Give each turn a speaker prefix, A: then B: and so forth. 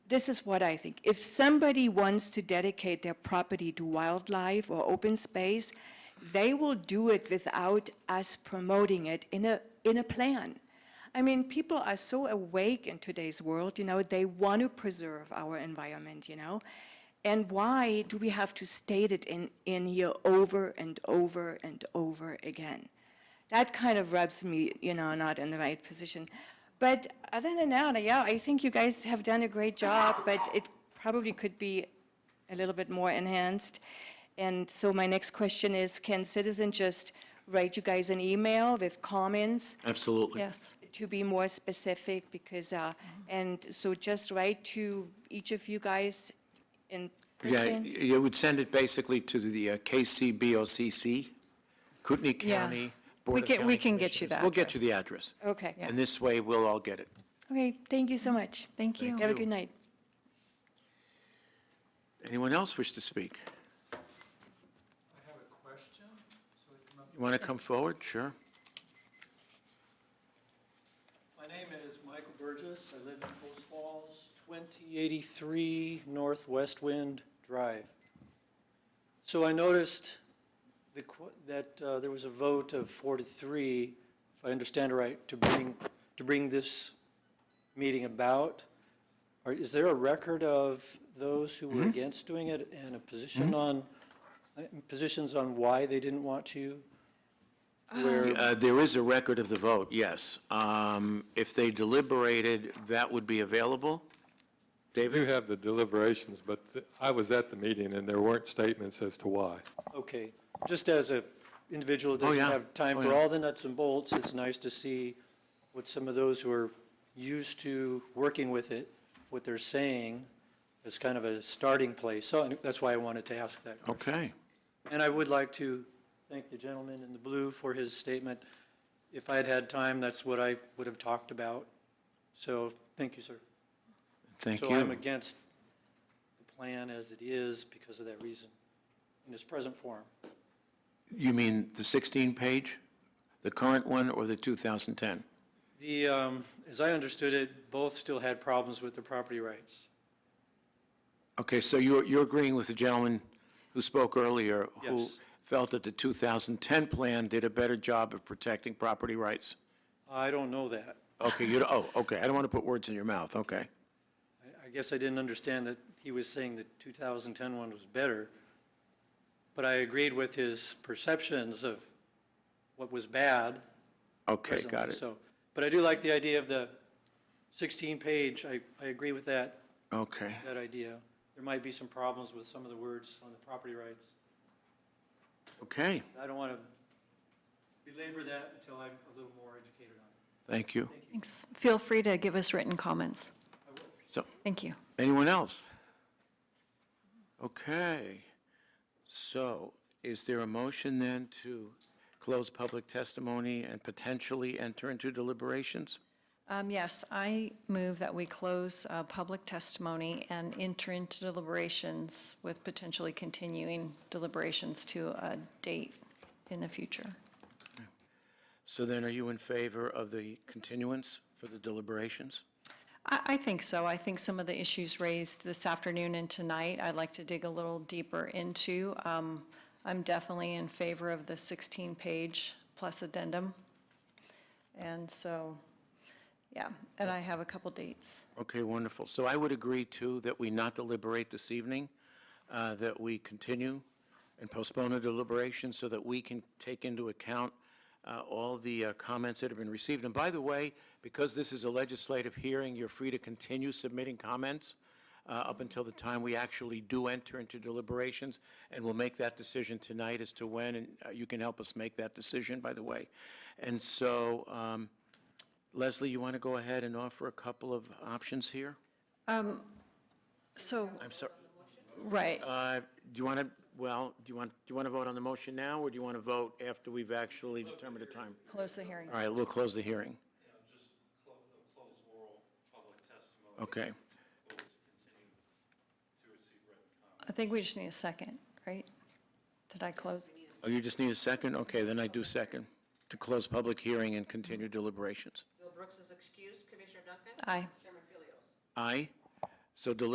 A: this is what I think. If somebody wants to dedicate their property to wildlife or open space, they will do it without us promoting it in a, in a plan. I mean, people are so awake in today's world, you know, they want to preserve our environment, you know? And why do we have to state it in, in here over and over and over again? that kind of rubs me, you know, not in the right position. But other than that, yeah, I think you guys have done a great job, but it probably could be a little bit more enhanced. And so my next question is, can citizen just write you guys an email with comments
B: Absolutely.
C: Yes.
A: to be more specific? Because, uh,
C: Mm-hmm.
A: and so just write to each of you guys in
B: Yeah,
A: person?
B: you would send it basically to the uh, KCBOCC, Kootenai
C: Yeah.
B: County
C: We
B: Board of
C: can-
B: County
C: we can get you
B: Commissioners.
C: the
B: We'll get you
C: address.
B: the address.
A: Okay,
C: Yeah.
B: And this way, we'll all get it.
A: okay, thank you so much.
C: Mm-hmm. Thank you.
A: Have a good night.
B: Anyone else wish to speak?
D: I have a question, so it come up.
B: You want to come forward? Sure.
D: My name is Michael Burgess. I live in Post Falls, 2083 Northwest Wind Drive. So I noticed the qu- that uh, there was a vote of four to three, if I understand right, to bring, to bring this meeting about. Or Is there a record of those who were against doing it and a position on, uh, positions on why they didn't want to? Where
B: Uh, There is a record of the vote, yes. Um, If they deliberated, that would be available.
E: We do have the deliberations, but th- I was at the meeting and there weren't statements as to why.
D: Okay, just as a individual that
B: Oh,
D: doesn't
B: yeah.
D: have time
B: Oh,
D: for
B: yeah.
D: all the nuts and bolts, it's nice to see what some of those who are used to working with it, what they're saying as kind of a starting place. So and that's why I wanted to ask that.
B: Okay.
D: And I would like to thank the gentleman in the blue for his statement. If I had had time, that's what I would have talked about. So, thank you, sir.
B: Thank you.
D: So I'm against the plan as it is because of that reason, in its present form.
B: You mean the 16-page, the current one, or the 2010?
D: The, um, as I understood it, both still had problems with the property rights.
B: Okay, so you're, you're agreeing with the gentleman who spoke earlier? Who
D: Yes.
B: felt that the 2010 plan did a better job of protecting property rights?
D: I don't know that.
B: Okay, you, oh, okay, I don't want to put words in your mouth, okay.
D: I- I guess I didn't understand that he was saying the 2010 one was better, but I agreed with his perceptions of what was bad.
B: Okay,
D: presently,
B: got it.
D: So, but I do like the idea of the 16-page, I, I agree with that,
B: Okay,
D: that idea. There might be some problems with some of the words on the property rights.
B: okay,
D: I don't want to belabor that until I'm a little more educated on it.
B: thank you.
C: Thanks. Feel free to give us written comments.
B: So,
C: Thank you.
B: anyone else? Okay, so is there a motion then to close public testimony and potentially enter into deliberations?
C: Um, Yes, I move that we close uh, public testimony and enter into deliberations with potentially continuing deliberations to a date in the future.
B: So then, are you in favor of the continuance for the deliberations?
C: I, I think so. I think some of the issues raised this afternoon and tonight, I'd like to dig a little deeper into. Um, I'm definitely in favor of the 16-page plus addendum. And so, yeah, and I have a couple dates.
B: Okay, wonderful. So I would agree, too, that we not deliberate this evening, uh, that we continue and postpone the deliberation so that we can take into account uh, all the uh, comments that have been received. And by the way, because this is a legislative hearing, you're free to continue submitting comments uh, up until the time we actually do enter into deliberations, and we'll make that decision tonight as to when, and uh, you can help us make that decision, by the way. And so, um, Leslie, you want to go ahead and offer a couple of options here?
C: So,
B: I'm sorry,
C: right,
B: uh, do you want to, well, do you want, do you want to vote on the motion now, or do you want to vote after we've actually determined the time?
C: close the hearing.
B: All right, we'll close the hearing. Okay,
C: I think we just need a second, right? Did I close?
B: oh, you just need a second? Okay, then I do second, to close public hearing and continue deliberations.
F: Bill Brooks is excused. Commissioner Duncan?
C: Aye.
F: Chairman Philios?
B: Aye, So deliberation